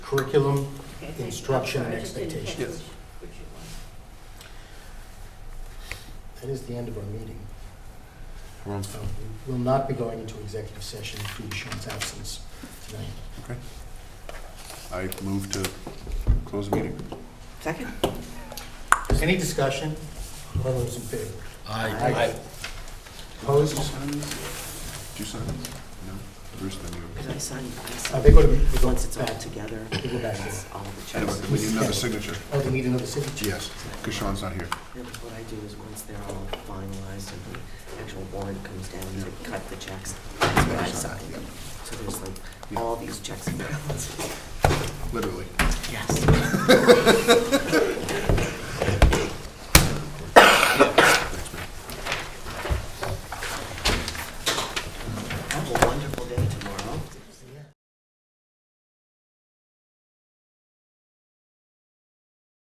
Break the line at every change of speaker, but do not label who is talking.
curriculum,
Okay, thank you.
Instruction
I'm sorry,
and
I just didn't catch
expectations.
which- which it was.
that is the end of our meeting.
Everyone's
Uh, We will not be going into executive session due to Sean's absence tonight.
I move to close the meeting.
Second?
Any discussion? All those in favor?
Aye.
Opposed?
Two seconds? No? Bruce, then you.
Because I signed, I
Uh,
signed.
They go to, they go
Once it's all
back to-
together,
they go back
it's
to-
all the
Anyway,
checks.
we need another signature.
Oh, they need another signature?
Yes, because Sean's not here.
Yeah, but what I do is once they're all finalized and the actual warrant comes down to cut the checks, that's what I sign. So there's like all these checks and balances.
Literally.
Yes.